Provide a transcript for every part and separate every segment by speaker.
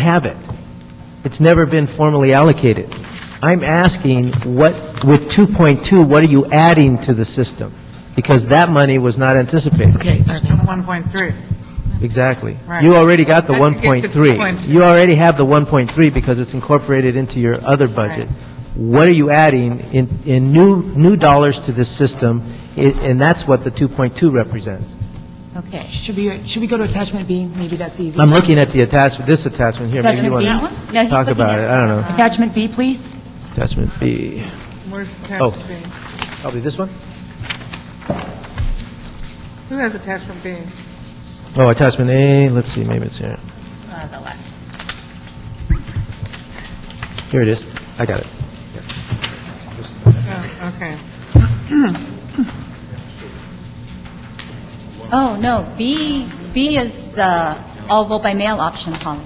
Speaker 1: have it. It's never been formally allocated. I'm asking, what, with 2.2, what are you adding to the system? Because that money was not anticipated.
Speaker 2: Okay, all right.
Speaker 3: 1.3.
Speaker 1: Exactly.
Speaker 3: Right.
Speaker 1: You already got the
Speaker 3: I can get the
Speaker 1: 1.3.
Speaker 3: 2.2.
Speaker 1: You already have the 1.3 because it's incorporated into your other budget. What are you adding in, in new, new dollars to this system? I- And that's what the 2.2 represents.
Speaker 2: okay. Should we, should we go to attachment B? Maybe that's easy.
Speaker 1: I'm looking at the attachment, this attachment here. Maybe you want
Speaker 2: Attachment
Speaker 1: to
Speaker 2: B?
Speaker 4: No, he's
Speaker 1: talk
Speaker 4: looking
Speaker 1: about
Speaker 4: at-
Speaker 1: it. I don't know.
Speaker 2: Attachment B, please.
Speaker 1: Attachment B.
Speaker 3: Where's
Speaker 1: Oh.
Speaker 3: attachment B?
Speaker 1: Probably this one?
Speaker 3: Who has attachment B?
Speaker 1: Oh, attachment A, let's see, maybe it's here.
Speaker 4: Uh, the last.
Speaker 1: Here it is. I got it.
Speaker 3: Oh, okay.
Speaker 4: Oh, no, B, B is the all vote by mail option, Holly.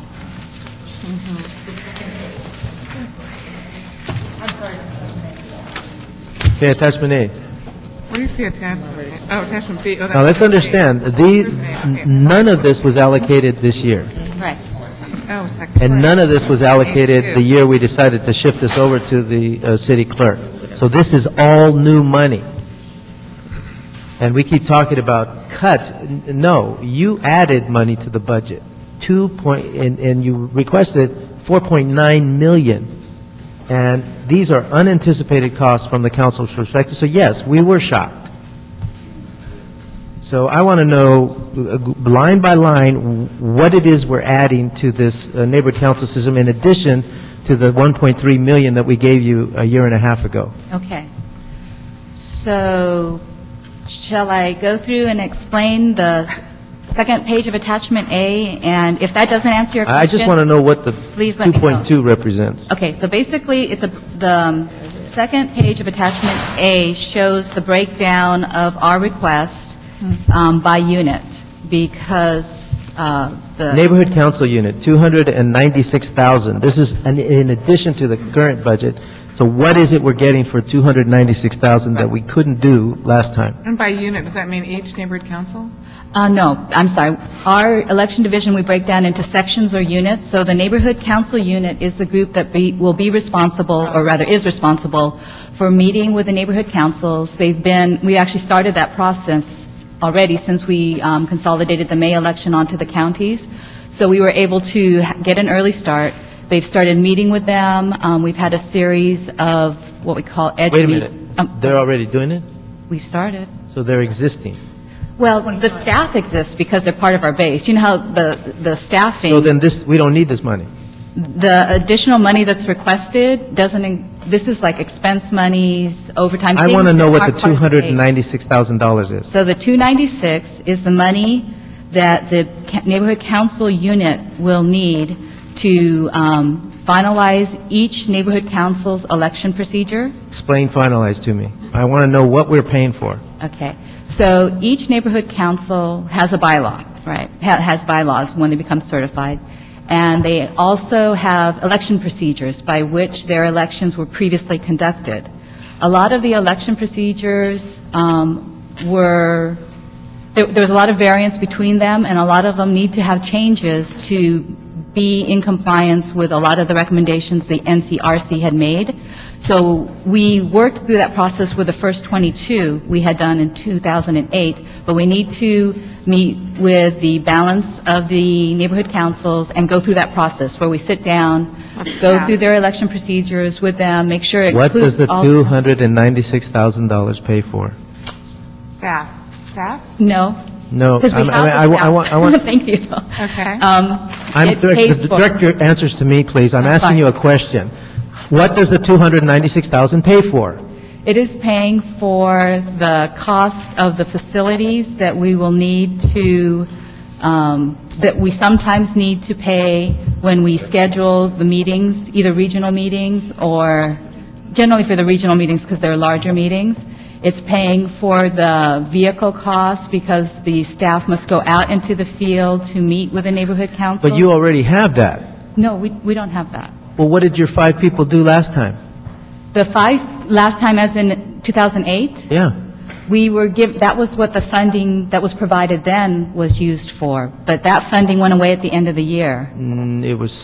Speaker 1: Okay, attachment A.
Speaker 3: Where do you see attachment B? Oh, attachment B.
Speaker 1: Now, let's understand, the, n- none of this was allocated this year,
Speaker 4: Right.
Speaker 3: Oh, second.
Speaker 1: and none of this was allocated the year we decided to shift this over to the uh, city clerk. So this is all new money. And we keep talking about cuts. N- No, you added money to the budget, 2 point, and, and you requested 4.9 million. And these are unanticipated costs from the council's perspective, so yes, we were shocked. So I want to know, uh, line by line, what it is we're adding to this uh, neighborhood council system in addition to the 1.3 million that we gave you a year and a half ago.
Speaker 4: Okay. So shall I go through and explain the second page of attachment A? And if that doesn't answer your question...
Speaker 1: I just want to know what the
Speaker 4: Please let me know.
Speaker 1: 2.2 represents.
Speaker 4: Okay, so basically, it's a, the um, second page of attachment A shows the breakdown of our request
Speaker 2: Hmm.
Speaker 4: um, by unit, because uh, the,
Speaker 1: Neighborhood council unit, 296,000. This is an- in addition to the current budget. So what is it we're getting for 296,000 that we couldn't do last time?
Speaker 3: And by unit, does that mean each neighborhood council?
Speaker 4: uh, no, I'm sorry. Our election division, we break down into sections or units, so the neighborhood council unit is the group that be, will be responsible, or rather is responsible, for meeting with the neighborhood councils. They've been, we actually started that process already since we um, consolidated the May election onto the counties. So we were able to ha- get an early start. They've started meeting with them. Um, We've had a series of what we call edge...
Speaker 1: Wait a
Speaker 4: meet-
Speaker 1: minute.
Speaker 4: Um,
Speaker 1: They're already doing it?
Speaker 4: We started.
Speaker 1: So they're existing?
Speaker 4: Well, the staff exists because they're part of our base. You know how the, the
Speaker 1: So
Speaker 4: staffing,
Speaker 1: then this, we don't need this money?
Speaker 4: the additional money that's requested doesn't, in- this is like expense monies, overtime.
Speaker 1: I want to
Speaker 4: things
Speaker 1: know
Speaker 4: that
Speaker 1: what
Speaker 4: are
Speaker 1: the
Speaker 4: part of the base.
Speaker 1: $296,000 is.
Speaker 4: So the 296 is the money that the ca- neighborhood council unit will need to um, finalize each neighborhood council's election procedure.
Speaker 1: Explain, finalize to me. I want to know what we're paying for.
Speaker 4: Okay, so each neighborhood council has a bylaw, right? Ha- Has bylaws when they become certified. And they also have election procedures by which their elections were previously conducted. A lot of the election procedures um, were, there there was a lot of variance between them, and a lot of them need to have changes to be in compliance with a lot of the recommendations the NCRC had made. So we worked through that process with the first 22 we had done in 2008, but we need to meet with the balance of the neighborhood councils and go through that process, where we sit down, go
Speaker 3: Yeah.
Speaker 4: through their election procedures with them, make sure it
Speaker 1: What does
Speaker 4: includes
Speaker 1: the
Speaker 4: all...
Speaker 1: $296,000 pay for?
Speaker 3: Staff. Staff?
Speaker 4: No,
Speaker 1: No.
Speaker 4: because we
Speaker 1: I'm-
Speaker 4: have...
Speaker 1: I mean, I wa- I want, I want,
Speaker 4: Thank you.
Speaker 3: Okay.
Speaker 4: Um,
Speaker 1: I'm,
Speaker 4: it
Speaker 1: direct-
Speaker 4: pays for-
Speaker 1: direct your answers to me, please. I'm
Speaker 4: I'm
Speaker 1: asking
Speaker 4: fine.
Speaker 1: you a question. What does the $296,000 pay for?
Speaker 4: It is paying for the cost of the facilities that we will need to, um, that we sometimes need to pay when we schedule the meetings, either regional meetings or generally for the regional meetings because they're larger meetings. It's paying for the vehicle costs because the staff must go out into the field to meet with the neighborhood council.
Speaker 1: But you already have that.
Speaker 4: No, we, we don't have that.
Speaker 1: Well, what did your five people do last time?
Speaker 4: The five, last time as in 2008?
Speaker 1: Yeah.
Speaker 4: We were giv, that was what the funding that was provided then was used for, but that funding went away at the end of the year.
Speaker 1: Mm, It was